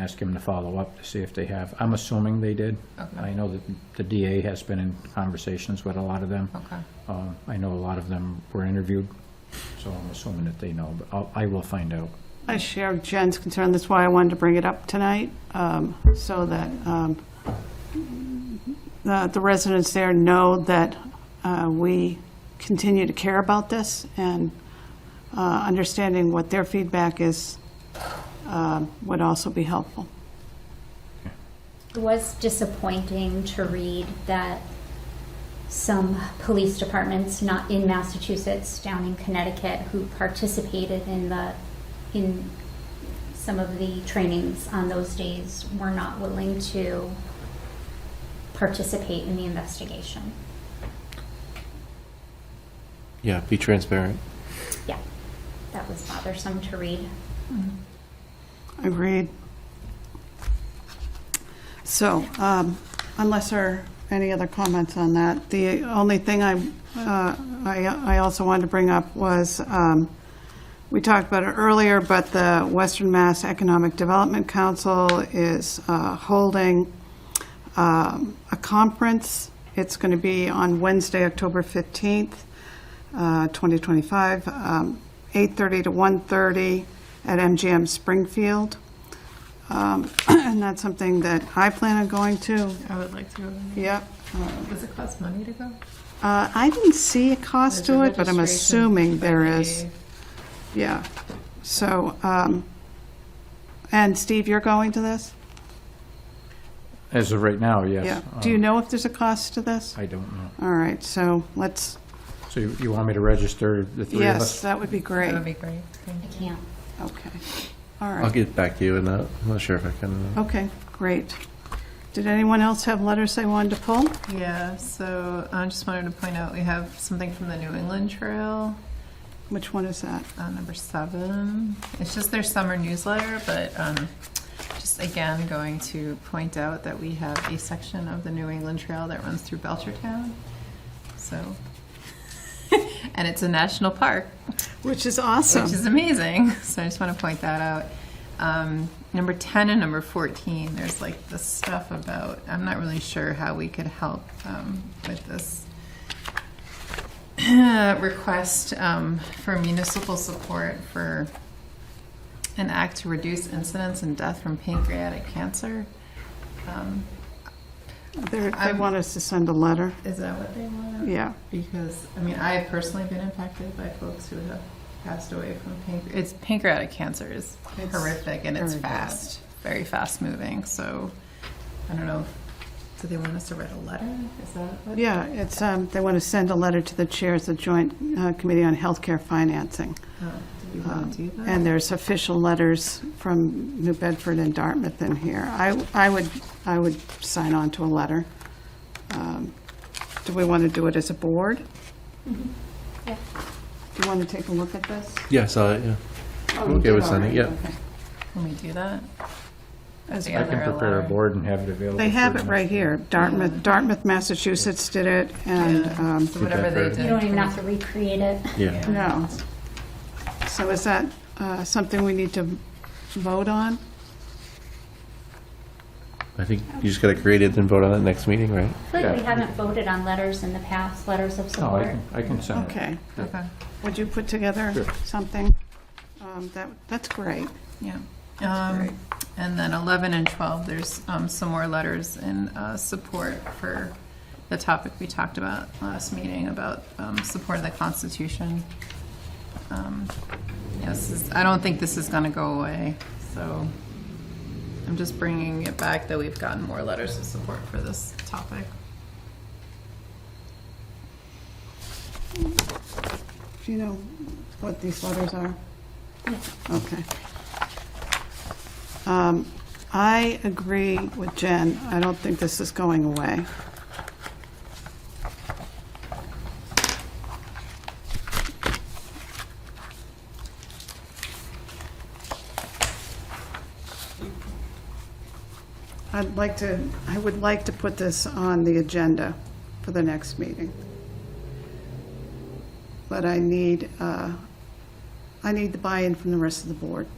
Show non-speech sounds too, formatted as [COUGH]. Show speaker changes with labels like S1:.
S1: ask him to follow up to see if they have. I'm assuming they did. I
S2: Okay,
S1: know that the DA has been in conversations with a lot of them.
S2: okay.
S1: Uh, I know a lot of them were interviewed, so I'm assuming that they know, but I'll- I will find out.
S3: I share Jen's concern, that's why I wanted to bring it up tonight, um, so that um, the the residents there know that uh, we continue to care about this, and uh, understanding what their feedback is um, would also be helpful.
S4: It was disappointing to read that some police departments, not in Massachusetts, down in Connecticut, who participated in the, in some of the trainings on those days, were not willing to participate in the investigation.
S5: Yeah, be transparent.
S4: Yeah, that was bothersome to read.
S3: Agreed. So, um, unless there are any other comments on that, the only thing I, uh, I I also wanted to bring up was, um, we talked about it earlier, but the Western Mass Economic Development Council is uh, holding um, a conference. It's going to be on Wednesday, October 15th, uh, 2025, um, 8:30 to 1:30 at MGM Springfield. Um, [CLEARS THROAT] And that's something that I plan on going to.
S2: I would like to,
S3: Yep.
S2: does it cost money to go?
S3: Uh, I didn't see a cost
S2: There's
S3: to
S2: a
S3: it, but I'm
S2: registration
S3: assuming there
S2: fee.
S3: is. Yeah. So, um, and Steve, you're going to this?
S1: As of right now, yes.
S3: Yeah. Do you
S1: Um,
S3: know if there's a cost to this?
S1: I don't know.
S3: All right, so let's,
S1: So you you want me to register the three of
S3: yes,
S1: us?
S3: that would be
S2: That
S3: great.
S2: would be great. Thank
S4: I
S2: you.
S4: can't.
S3: Okay. All
S5: I'll
S3: right.
S5: get back to you in that. I'm not sure if I can.
S3: Okay, great. Did anyone else have letters they wanted to pull?
S2: Yeah, so uh, I just wanted to point out, we have something from the New England Trail,
S3: Which one is that?
S2: uh, number seven. It's just their summer newsletter, but um, just again, going to point out that we have a section of the New England Trail that runs through Belchertown, so. [LAUGHS] And it's a national park,
S3: Which is awesome.
S2: which is amazing. [LAUGHS] So I just want to point that out. Um, number 10 and number 14, there's like this stuff about, I'm not really sure how we could help um, with this [CLEARS THROAT] request um, for municipal support for an act to reduce incidence and death from pancreatic cancer. Um,
S3: They're- They
S2: I'm-
S3: want us to send a letter.
S2: is that what they want?
S3: Yeah.
S2: Because, I mean, I have personally been impacted by folks who have passed away from pancreatic. It's pancreatic cancer is
S3: It's
S2: horrific and it's
S3: very bad.
S2: fast, very fast moving. So I don't know. Do they want us to write a letter? Is that what?
S3: Yeah, it's, um, they want to send a letter to the chairs of Joint uh, Committee on Healthcare Financing.
S2: Oh, do you want to do that?
S3: And there's official letters from New Bedford and Dartmouth in here. I, I would, I would sign on to a letter. Um, Do we want to do it as a board? Do
S4: Yeah.
S3: you want to take a look at this?
S5: Yeah, I saw it. Yeah.
S3: Oh,
S5: I'm
S3: you
S5: okay
S3: did,
S5: with
S3: all
S5: signing,
S3: right,
S5: yeah.
S3: okay.
S2: Can we do that?
S3: As
S2: Yeah,
S1: I can
S2: they're
S1: prepare a
S2: allowed.
S1: board and have it available.
S3: They have
S1: for
S3: it
S1: them.
S3: right here. Dartmouth, Dartmouth, Massachusetts did it, and,
S2: Yeah.
S3: um,
S2: So whatever they
S5: Bedford.
S2: did.
S4: You don't even have to recreate it.
S5: Yeah.
S3: no. So is that uh, something we need to vote on?
S5: I think you just got to create it and vote on it next meeting, right?
S4: I feel like we
S1: Yeah.
S4: haven't voted on letters in the past, letters of
S1: No, Oh, I
S4: support.
S1: can, I can send it.
S3: Okay.
S2: Okay.
S3: Would you put together
S1: Sure.
S3: something? Um, That, that's great.
S2: Yeah.
S3: That's great.
S2: Um, And then 11 and 12, there's um, some more letters in uh, support for the topic we talked about last meeting about um, support of the Constitution. Um, Yes, this- I don't think this is going to go away, so I'm just bringing it back that we've gotten more letters of support for this topic.
S3: Do you know what these letters are? Okay. Um, I agree with Jen. I don't think this is going away. I'd like to, I would like to put this on the agenda for the next meeting but I need, uh, I need the buy-in from the rest of the board.